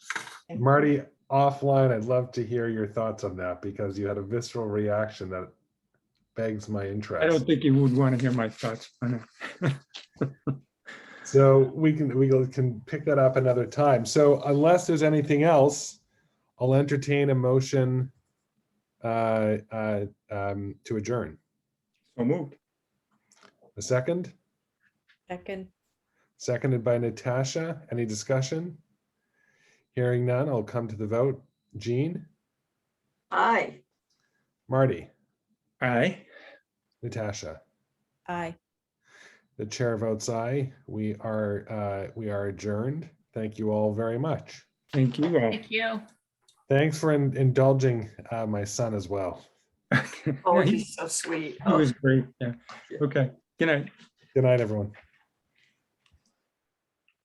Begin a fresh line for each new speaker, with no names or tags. Marty, offline, I'd love to hear your thoughts on that because you had a visceral reaction that begs my
I don't
interest.
think you would want to hear my thoughts on it.
So we can, we can pick that up another time. So unless there's anything else, I'll entertain a motion uh, uh, um, to adjourn.
So moved.
A second,
Second,
seconded by Natasha. Any discussion? Hearing none, I'll come to the vote. Jean,
Aye.
Marty,
Aye.
Natasha.
aye.
The chair votes aye. We are, uh, we are adjourned. Thank you all very much.
Thank you all.
Thank you.
Thanks for in- indulging uh, my son as well.
Oh,
He
he's so sweet. Oh.
was great. Yeah. Okay. Good night.
Good night, everyone.